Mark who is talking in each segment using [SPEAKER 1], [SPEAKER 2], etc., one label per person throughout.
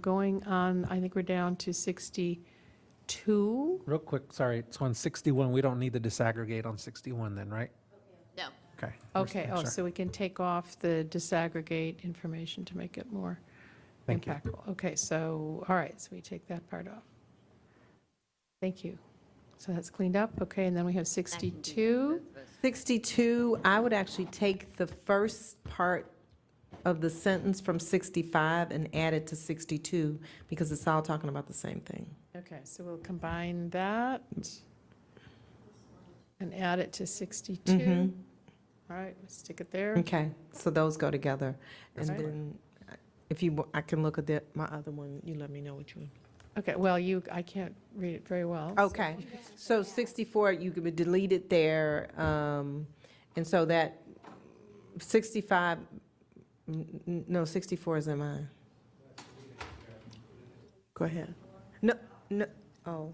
[SPEAKER 1] Going on, I think we're down to 62.
[SPEAKER 2] Real quick, sorry, it's on 61, we don't need to disaggregate on 61 then, right?
[SPEAKER 3] No.
[SPEAKER 2] Okay.
[SPEAKER 1] Okay, oh,
[SPEAKER 2] Sure.
[SPEAKER 1] so we can take off the disaggregate information to make it more
[SPEAKER 2] Thank you.
[SPEAKER 1] impactful. Okay, so, all right, so we take that part off. Thank you. So that's cleaned up, okay, and then we have 62.
[SPEAKER 4] 62, I would actually take the first part of the sentence from 65 and add it to 62, because it's all talking about the same thing.
[SPEAKER 1] Okay, so we'll combine that and add it to 62.
[SPEAKER 4] Mhm.
[SPEAKER 2] Mm-hmm.
[SPEAKER 1] All right, we'll stick it there.
[SPEAKER 4] Okay, so those go together. And
[SPEAKER 1] Okay.
[SPEAKER 4] then, uh, if you, wa- I can look at the, my other one, you let me know what you.
[SPEAKER 1] Okay, well, you, I can't read it very well. so-
[SPEAKER 4] Okay, so 64, you could delete it there, um, and so that 65, n- n- no, 64 is in mine. Go ahead. No, no, oh,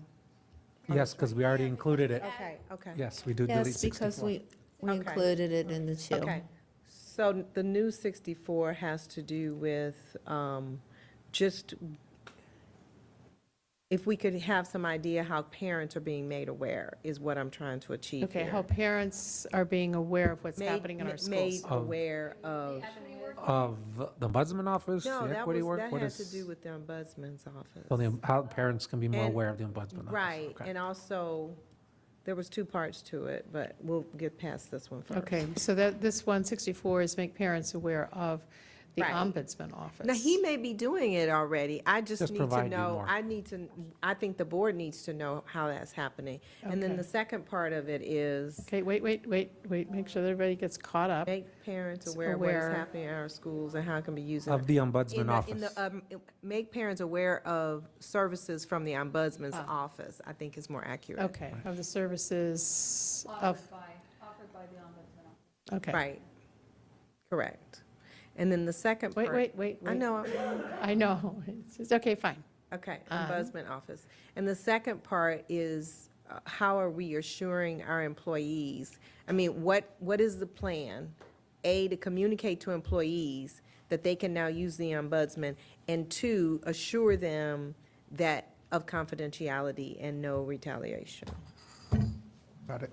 [SPEAKER 2] Yes, because we already included it.
[SPEAKER 4] okay, okay.
[SPEAKER 2] Yes, we do delete
[SPEAKER 3] Yes, because
[SPEAKER 2] 64.
[SPEAKER 3] we, we
[SPEAKER 4] Okay.
[SPEAKER 3] included it in the two.
[SPEAKER 4] Okay, so the new 64 has to do with um, just, if we could have some idea how parents are being made aware, is what I'm trying to achieve
[SPEAKER 1] Okay,
[SPEAKER 4] here.
[SPEAKER 1] how parents are being aware of what's
[SPEAKER 4] Made-
[SPEAKER 1] happening in
[SPEAKER 4] ma-
[SPEAKER 1] our schools.
[SPEAKER 4] Made
[SPEAKER 2] Of-
[SPEAKER 4] aware of,
[SPEAKER 2] Of the Ombudsman Office,
[SPEAKER 4] no,
[SPEAKER 2] the
[SPEAKER 4] that
[SPEAKER 2] Equity
[SPEAKER 4] was,
[SPEAKER 2] Work,
[SPEAKER 4] that
[SPEAKER 2] what
[SPEAKER 4] had to
[SPEAKER 2] is?
[SPEAKER 4] do with the ombudsman's office.
[SPEAKER 2] Well, the- How parents can be more
[SPEAKER 4] And-
[SPEAKER 2] aware of the Ombudsman Office.
[SPEAKER 4] Right,
[SPEAKER 2] Okay.
[SPEAKER 4] and also, there was two parts to it, but we'll get past this one first.
[SPEAKER 1] Okay, so that, this 164 is make parents aware of the
[SPEAKER 4] Right.
[SPEAKER 1] ombudsman office.
[SPEAKER 4] Now, he may be doing it already. I just
[SPEAKER 2] Just
[SPEAKER 4] need to
[SPEAKER 2] provide you
[SPEAKER 4] know,
[SPEAKER 2] more.
[SPEAKER 4] I need to, I think the board needs to know how that's happening. And
[SPEAKER 1] Okay.
[SPEAKER 4] then the second part of it is
[SPEAKER 1] Okay, wait, wait, wait, wait, make sure that everybody gets caught up.
[SPEAKER 4] make parents aware of what
[SPEAKER 1] Aware.
[SPEAKER 4] is happening in our schools and how it can be used. in
[SPEAKER 2] Of the
[SPEAKER 4] in
[SPEAKER 2] Ombudsman
[SPEAKER 4] the- in the,
[SPEAKER 2] Office.
[SPEAKER 4] um, Make parents aware of services from the ombudsman's
[SPEAKER 1] Ah.
[SPEAKER 4] office, I think is more accurate.
[SPEAKER 1] Okay, of the services of,
[SPEAKER 5] offered by, offered by the ombudsman.
[SPEAKER 1] okay.
[SPEAKER 4] Right. Correct. And then the second part.
[SPEAKER 1] Wait, wait, wait,
[SPEAKER 4] I
[SPEAKER 1] wait,
[SPEAKER 4] know, I'm-
[SPEAKER 1] I know, it's, just- okay, fine.
[SPEAKER 4] Okay,
[SPEAKER 1] Um,
[SPEAKER 4] ombudsman office. And the second part is, uh, how are we assuring our employees? I mean, what, what is the plan? A, to communicate to employees that they can now use the ombudsman, and two, assure them that, of confidentiality and no retaliation.
[SPEAKER 2] Got it.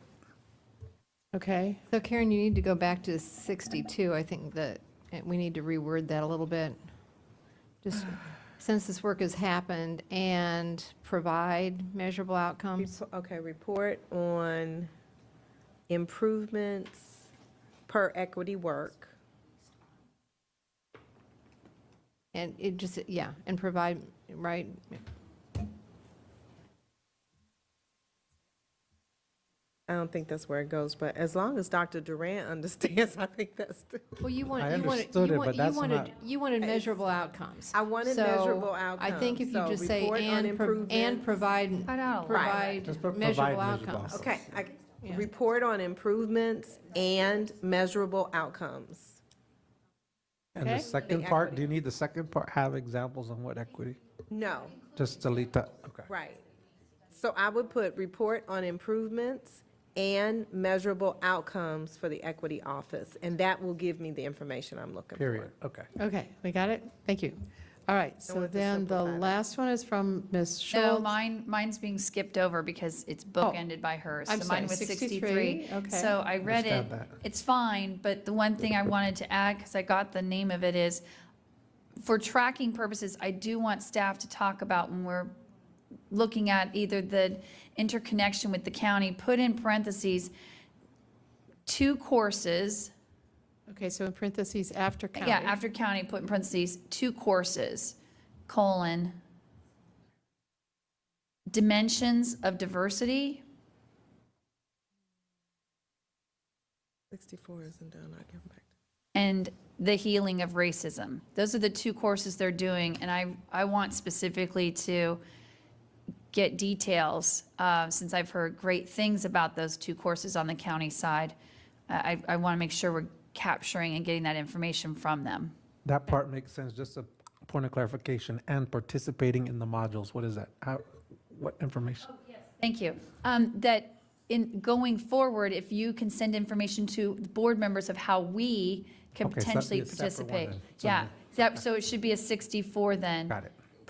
[SPEAKER 1] Okay,
[SPEAKER 5] So Karen, you need to go back to 62. I think that eh, we need to reword that a little bit. Just since this work has happened and provide measurable outcomes.
[SPEAKER 4] Repo- Okay, report on improvements per equity work.
[SPEAKER 5] And it just, yeah, and provide, right?
[SPEAKER 4] I don't think that's where it goes, but as long as Dr. Durant understands, I think that's the.
[SPEAKER 5] Well, you want,
[SPEAKER 2] I
[SPEAKER 5] you want,
[SPEAKER 2] understood it, but
[SPEAKER 5] you want, you
[SPEAKER 2] that's
[SPEAKER 5] wanted,
[SPEAKER 2] not-
[SPEAKER 5] you wanted measurable outcomes.
[SPEAKER 4] I wanted
[SPEAKER 5] So
[SPEAKER 4] measurable
[SPEAKER 5] I think if you
[SPEAKER 4] outcomes.
[SPEAKER 5] just
[SPEAKER 4] So
[SPEAKER 5] say
[SPEAKER 4] report on
[SPEAKER 5] and, pro- and
[SPEAKER 4] improvements."
[SPEAKER 5] provide,
[SPEAKER 2] Just
[SPEAKER 5] provide
[SPEAKER 2] pro- provide
[SPEAKER 5] measurable
[SPEAKER 2] measurable
[SPEAKER 5] outcomes.
[SPEAKER 2] outcomes.
[SPEAKER 4] Okay, I, report on improvements and measurable outcomes.
[SPEAKER 2] And the
[SPEAKER 1] Okay.
[SPEAKER 2] second
[SPEAKER 4] The
[SPEAKER 2] part,
[SPEAKER 4] equity.
[SPEAKER 2] do you need the second part, have examples on what equity?
[SPEAKER 4] No,
[SPEAKER 2] Just delete that, okay.
[SPEAKER 4] right. So I would put report on improvements and measurable outcomes for the equity office, and that will give me the information I'm looking for.
[SPEAKER 2] Period, okay.
[SPEAKER 1] okay, we got it? Thank you. All right, so
[SPEAKER 4] want to
[SPEAKER 1] then the
[SPEAKER 4] simplify that.
[SPEAKER 1] last one is from Ms.
[SPEAKER 6] No,
[SPEAKER 1] Schultz.
[SPEAKER 6] mine, mine's being skipped over because it's bookended by hers.
[SPEAKER 1] Oh, I'm
[SPEAKER 6] So
[SPEAKER 1] sorry,
[SPEAKER 6] mine was
[SPEAKER 1] 63,
[SPEAKER 6] 63.
[SPEAKER 1] okay.
[SPEAKER 6] So I read it,
[SPEAKER 2] Understand that.
[SPEAKER 6] it's fine, but the one thing I wanted to add, because I got the name of it, is for tracking purposes, I do want staff to talk about when we're looking at either the interconnection with the county, put in parentheses, two courses,
[SPEAKER 1] Okay, so in parentheses, after county.
[SPEAKER 6] yeah, after county, put in parentheses, two courses, colon, dimensions of diversity,
[SPEAKER 4] Sixty-four isn't done, I can back.
[SPEAKER 6] and the healing of racism. Those are the two courses they're doing, and I, I want specifically to get details, uh, since I've heard great things about those two courses on the county side. I, I want to make sure we're capturing and getting that information from them.
[SPEAKER 2] That part makes sense, just a point of clarification, and participating in the modules, what is that? How, what information?
[SPEAKER 6] Thank you. Um, That in, going forward, if you can send information to the board members of how we can
[SPEAKER 2] Okay, so that'd be
[SPEAKER 6] potentially
[SPEAKER 2] a separate one
[SPEAKER 6] participate.
[SPEAKER 2] then. So
[SPEAKER 6] Yeah,
[SPEAKER 2] moved.
[SPEAKER 6] that, so it should be a 64 then.
[SPEAKER 2] Got it.